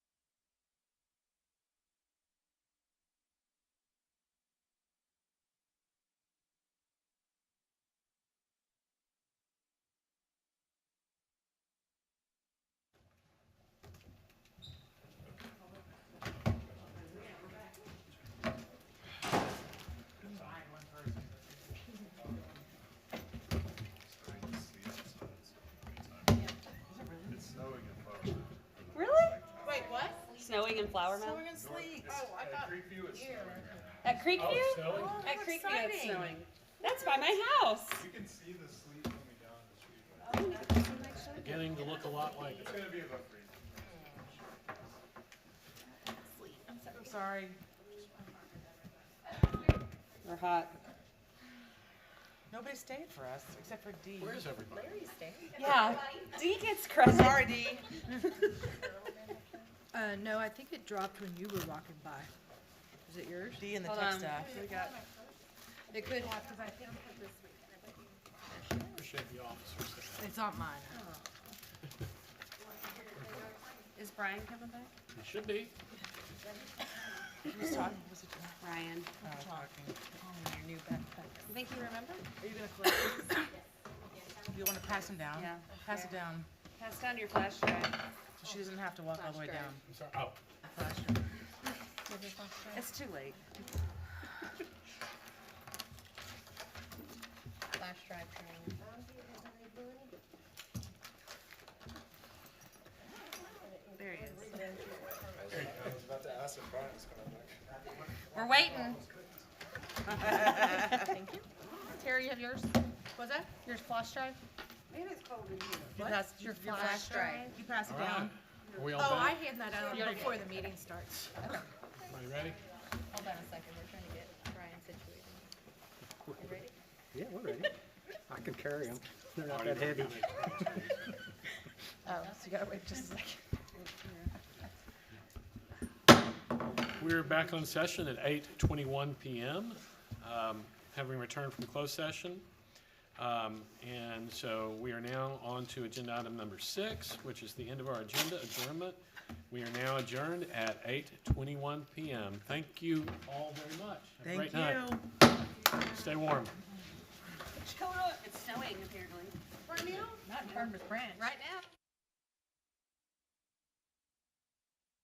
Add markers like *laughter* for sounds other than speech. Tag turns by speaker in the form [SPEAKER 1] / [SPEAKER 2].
[SPEAKER 1] snowing in Flower Mound?
[SPEAKER 2] Snowing and sleet.
[SPEAKER 3] Oh, I got here.
[SPEAKER 1] At Creekview?
[SPEAKER 2] Oh, how
[SPEAKER 1] At Creekview it's
[SPEAKER 2] exciting.
[SPEAKER 1] snowing. That's by my house.
[SPEAKER 3] You can see the sleet coming down the street.
[SPEAKER 4] Beginning to look a lot like
[SPEAKER 3] It's gonna be about freezing.
[SPEAKER 2] I'm sorry.
[SPEAKER 1] We're hot.
[SPEAKER 2] Nobody stayed for us except for Dee.
[SPEAKER 4] Where's everybody?
[SPEAKER 1] Yeah. Dee gets credit.
[SPEAKER 2] Sorry, Dee.
[SPEAKER 5] Uh, no, I think it dropped when you were walking by. Is it yours?
[SPEAKER 2] Dee and the
[SPEAKER 1] Hold
[SPEAKER 2] tech
[SPEAKER 1] on.
[SPEAKER 2] staff. We got
[SPEAKER 5] It could,
[SPEAKER 4] Appreciate the officers. that-
[SPEAKER 5] it's not mine.
[SPEAKER 1] Is Brian coming back?
[SPEAKER 4] It should be.
[SPEAKER 2] who's talking. Was it John?
[SPEAKER 1] Ryan.
[SPEAKER 2] Oh, talking.
[SPEAKER 5] Oh, your new backpack.
[SPEAKER 1] I think you remember?
[SPEAKER 2] Are you gonna collect these? You wanna pass them down?
[SPEAKER 1] Yeah.
[SPEAKER 2] Pass it down.
[SPEAKER 1] Pass down your flash drive.
[SPEAKER 2] so She doesn't have to walk all the way
[SPEAKER 1] Flash
[SPEAKER 2] down.
[SPEAKER 1] drive.
[SPEAKER 4] I'm sorry. Oh,
[SPEAKER 2] Flash drive. It's too late.
[SPEAKER 6] Flash drive training.
[SPEAKER 2] There he is.
[SPEAKER 3] I was about to ask if Brian was coming back.
[SPEAKER 6] We're waiting. Thank you. Terry, you have yours? Was that? Yours flash drive?
[SPEAKER 2] You pass, your
[SPEAKER 6] Your flash drive.
[SPEAKER 2] You pass it
[SPEAKER 4] all right.
[SPEAKER 2] down.
[SPEAKER 4] Are we all
[SPEAKER 5] Oh, I
[SPEAKER 4] done?
[SPEAKER 5] hand that out before the meeting starts.
[SPEAKER 4] Are you ready?
[SPEAKER 6] Hold on a second, we're trying to get Brian situated. You ready?
[SPEAKER 7] Yeah, we're ready. I can carry them. They're not that heavy.
[SPEAKER 2] Oh, so you gotta wait just a second.
[SPEAKER 4] *laughs* We're back on session at eight twenty-one PM, um, having returned from closed session. Um, and so we are now on to agenda item number six, which is the end of our agenda adjournment. We are now adjourned at eight twenty-one PM. Thank you all very much. Have a
[SPEAKER 2] Thank
[SPEAKER 4] great night.
[SPEAKER 2] you.
[SPEAKER 4] Stay warm.
[SPEAKER 1] It's snowing apparently.
[SPEAKER 6] Right now?